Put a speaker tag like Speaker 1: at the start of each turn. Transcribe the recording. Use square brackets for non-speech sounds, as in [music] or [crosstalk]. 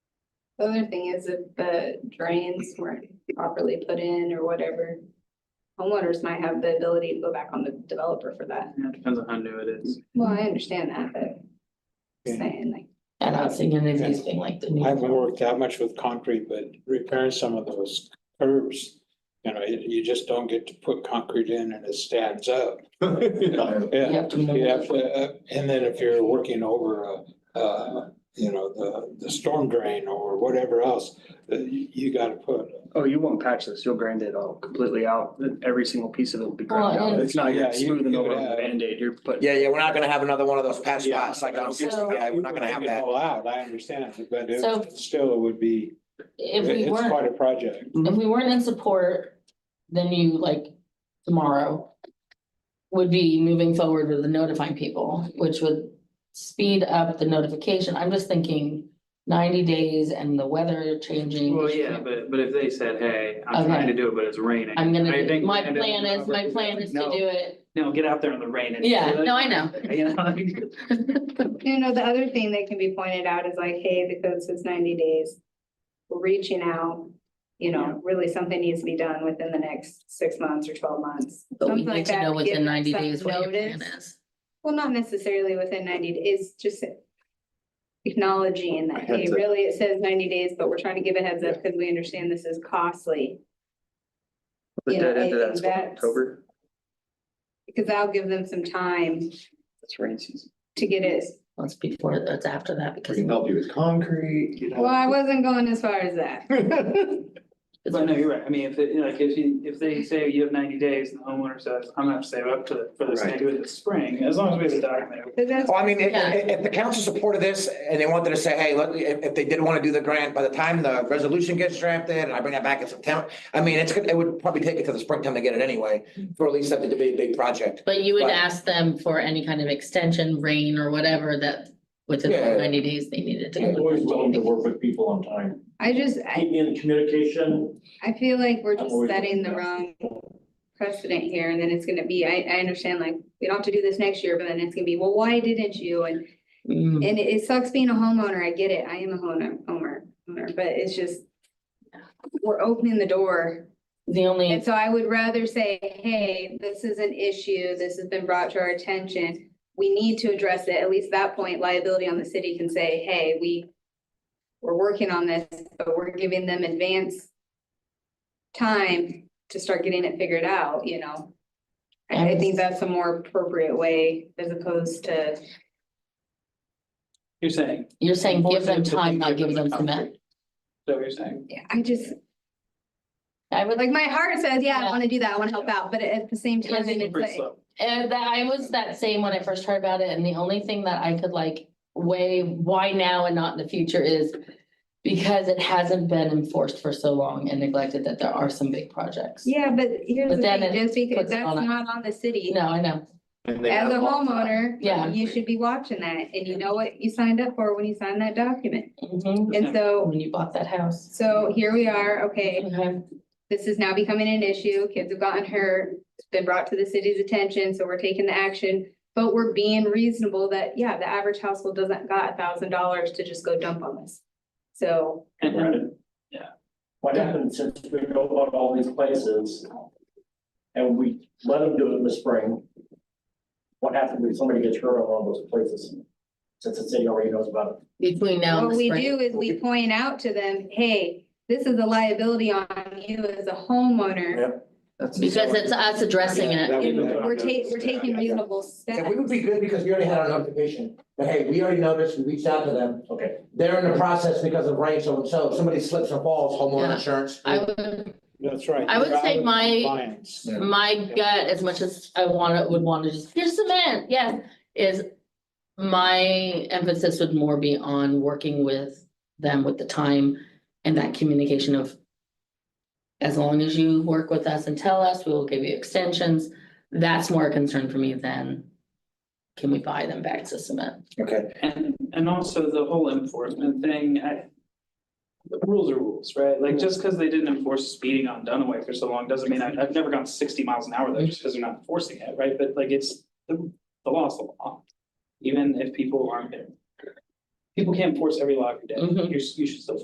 Speaker 1: The other thing is if the drains weren't properly put in or whatever. Homeowners might have the ability to go back on the developer for that.
Speaker 2: Yeah, it depends on how new it is.
Speaker 1: Well, I understand that, but just saying like,
Speaker 3: I'm not seeing any of these being like the
Speaker 4: I haven't
Speaker 3: new.
Speaker 4: worked that much with concrete, but repairing some of those curves, you know, you, you just don't get to put concrete in and it
Speaker 5: [laughs]
Speaker 4: stands up.
Speaker 3: You
Speaker 4: Yeah,
Speaker 3: have to know
Speaker 4: you have
Speaker 3: which
Speaker 4: to, uh, and then if you're working over, uh, uh, you know, the, the storm drain or whatever else, uh, you, you gotta put.
Speaker 2: Oh, you won't patch this, you'll grind it all completely out, every single piece of it will be ground
Speaker 3: Well,
Speaker 2: out,
Speaker 3: and-
Speaker 2: it's not
Speaker 4: Yeah,
Speaker 2: you're
Speaker 4: you-
Speaker 2: smoothing
Speaker 4: you
Speaker 2: over
Speaker 4: would
Speaker 2: with a
Speaker 4: have-
Speaker 2: Band-Aid, you're putting.
Speaker 6: Yeah, yeah, we're not gonna have another one of those patch
Speaker 4: Yeah.
Speaker 6: spots like on,
Speaker 3: So-
Speaker 6: yeah, we're not gonna have that.
Speaker 4: All out, I understand, but
Speaker 3: So-
Speaker 4: it, still it would be,
Speaker 3: If we
Speaker 4: it's
Speaker 3: weren't,
Speaker 4: quite a project.
Speaker 3: if we weren't in support, then you like tomorrow. Would be moving forward with notifying people, which would speed up the notification. I'm just thinking ninety days and the weather changing.
Speaker 2: Well, yeah, but, but if they said, hey, I'm trying to do it, but it's raining.
Speaker 3: I'm gonna,
Speaker 2: I
Speaker 3: do-
Speaker 2: think
Speaker 3: my
Speaker 2: Brandon
Speaker 3: plan
Speaker 2: and
Speaker 3: is, my
Speaker 2: Robert-
Speaker 3: plan is to
Speaker 2: No,
Speaker 3: do it.
Speaker 2: No, get out there in the rain and.
Speaker 3: Yeah, no, I know.
Speaker 2: You
Speaker 3: [laughs]
Speaker 2: know?
Speaker 1: you know, the other thing that can be pointed out is like, hey, the code says ninety days. We're Reaching out, you
Speaker 2: Yeah.
Speaker 1: know, really something needs to be done within the next six months or twelve months.
Speaker 3: But we
Speaker 1: something like
Speaker 3: need to
Speaker 1: that
Speaker 3: know
Speaker 1: give
Speaker 3: within
Speaker 1: them
Speaker 3: ninety
Speaker 1: some
Speaker 3: days what your plan
Speaker 1: notice.
Speaker 3: is.
Speaker 1: Well, not necessarily within ninety days, just acknowledging that, hey,
Speaker 2: Heads up.
Speaker 1: really, it says ninety days, but we're trying to give a heads up because we understand this is costly.
Speaker 2: The
Speaker 1: You know,
Speaker 2: dead end
Speaker 1: I
Speaker 2: of
Speaker 1: think
Speaker 2: that's what,
Speaker 1: that's-
Speaker 2: October,
Speaker 1: Because that'll give them some time
Speaker 2: that's rain season.
Speaker 1: to get it.
Speaker 3: Well, it's before, it's after that because.
Speaker 5: We can help you with concrete, you
Speaker 1: Well,
Speaker 5: know.
Speaker 1: I wasn't going as far as that. [laughs]
Speaker 3: it's-
Speaker 2: But no, you're right, I mean, if, it- like, if you, if they say you have ninety days and the homeowner says, I'm gonna have to save up to, for this to
Speaker 5: Right.
Speaker 2: do it this spring, as long as we have a document.
Speaker 1: But that's-
Speaker 6: Well, I mean, if,
Speaker 3: Yeah.
Speaker 6: if, if the council supported this and they wanted to say, hey, look, if, if they did wanna do the grant, by the time the resolution gets drafted and I bring that back in September, I mean, it's, gonna- it would probably take it to the springtime to get it anyway, for at least something to be a big project.
Speaker 3: But you would
Speaker 6: But-
Speaker 3: ask them for any kind of extension, rain or whatever that within
Speaker 6: Yeah.
Speaker 3: the ninety days they needed
Speaker 7: I'm always willing to
Speaker 3: to.
Speaker 7: work with people on time.
Speaker 1: I just, I,
Speaker 7: Keep me in communication.
Speaker 1: I feel like we're
Speaker 7: I'm
Speaker 1: just
Speaker 7: always-
Speaker 1: setting the wrong precedent here and then it's gonna be, I, I understand like, we don't have to do this next year, but then it's gonna be, well, why didn't you? And
Speaker 3: Mm.
Speaker 1: And it- it sucks being a homeowner, I get it, I am a homeowner, owner, owner, but it's just. We're opening the door,
Speaker 3: The only,
Speaker 1: and so I would rather say, hey, this is an issue, this has been brought to our attention. We need to address it, at least that point liability on the city can say, hey, we. We're working on this, but we're giving them advance. Time to start getting it figured out, you know? I, I think that's a more appropriate way as opposed to.
Speaker 2: You're saying.
Speaker 3: you're saying give them
Speaker 2: Force to
Speaker 3: time, not
Speaker 2: give
Speaker 3: give them
Speaker 2: the
Speaker 3: cement.
Speaker 2: concrete. Is that what you're saying?
Speaker 1: Yeah, I just,
Speaker 3: I would
Speaker 1: like, my heart says, yeah, I
Speaker 3: Yeah.
Speaker 1: wanna do that, I wanna help out, but at the same time,
Speaker 3: Yeah,
Speaker 1: it's
Speaker 2: Pretty
Speaker 1: like,
Speaker 2: slow.
Speaker 3: And that I was that same when I first heard about it, and the only thing that I could like weigh why now and not in the future is. Because it hasn't been enforced for so long and neglected that there are some big projects.
Speaker 1: yeah, but here's
Speaker 3: But
Speaker 1: the
Speaker 3: then
Speaker 1: thing,
Speaker 3: it
Speaker 1: just because
Speaker 3: puts
Speaker 1: that's
Speaker 3: on a-
Speaker 1: not on the city.
Speaker 3: No, I know,
Speaker 5: And they
Speaker 1: As
Speaker 5: have a
Speaker 1: a
Speaker 5: lot of-
Speaker 1: homeowner,
Speaker 3: Yeah.
Speaker 1: you should be watching that, and you know what you signed up for when you signed that document.
Speaker 3: Mhm.
Speaker 1: And so,
Speaker 3: when you bought that house.
Speaker 1: so here we are, okay,
Speaker 3: Okay.
Speaker 1: this is now becoming an issue, kids have gotten hurt, it's been brought to the city's attention, so we're taking the action. But we're being reasonable that, yeah, the average household doesn't got a thousand dollars to just go dump on this. So,
Speaker 2: And- and-
Speaker 7: What happened since we know about all these places? And we let them do it in the spring. What happens if somebody gets hurt on one of those places? Since the city already knows about it.
Speaker 3: Between now and
Speaker 1: what
Speaker 3: the
Speaker 1: we
Speaker 3: spring.
Speaker 1: do is we point out to them, hey, this is a liability on you as a homeowner.
Speaker 2: That's-
Speaker 3: Because it's us addressing it.
Speaker 4: That would
Speaker 1: And
Speaker 4: be-
Speaker 1: We're taking, we're taking reasonable
Speaker 6: Yeah,
Speaker 1: steps.
Speaker 6: we would be good because we already had our notification, but hey, we already noticed, we reached out to them.
Speaker 7: Okay.
Speaker 6: They're in the process because of rain, so and so, if somebody slips or falls,
Speaker 3: Yeah.
Speaker 6: homeowner insurance.
Speaker 3: I would,
Speaker 4: That's right.
Speaker 3: I would
Speaker 4: You're out
Speaker 3: say
Speaker 4: of
Speaker 3: my-
Speaker 4: compliance.
Speaker 3: my gut, as much as I wanna, would wanna just, here's cement, yes, is. My emphasis would more be on working with them with the time and that communication of. As long as you work with us and tell us, we will give you extensions, that's more a concern for me than. Can we buy them back to cement?
Speaker 6: Okay.
Speaker 2: And, and also the whole enforcement thing, I. the Rules are rules, right? Like, just because they didn't enforce speeding on Dunaway for so long, doesn't mean I, I've never gone sixty miles an hour there just because they're not enforcing it, right? But like, it's, the, the law is the law. Even if people aren't there. People can't enforce every law every day.
Speaker 3: Mhm.
Speaker 2: You, s- you should still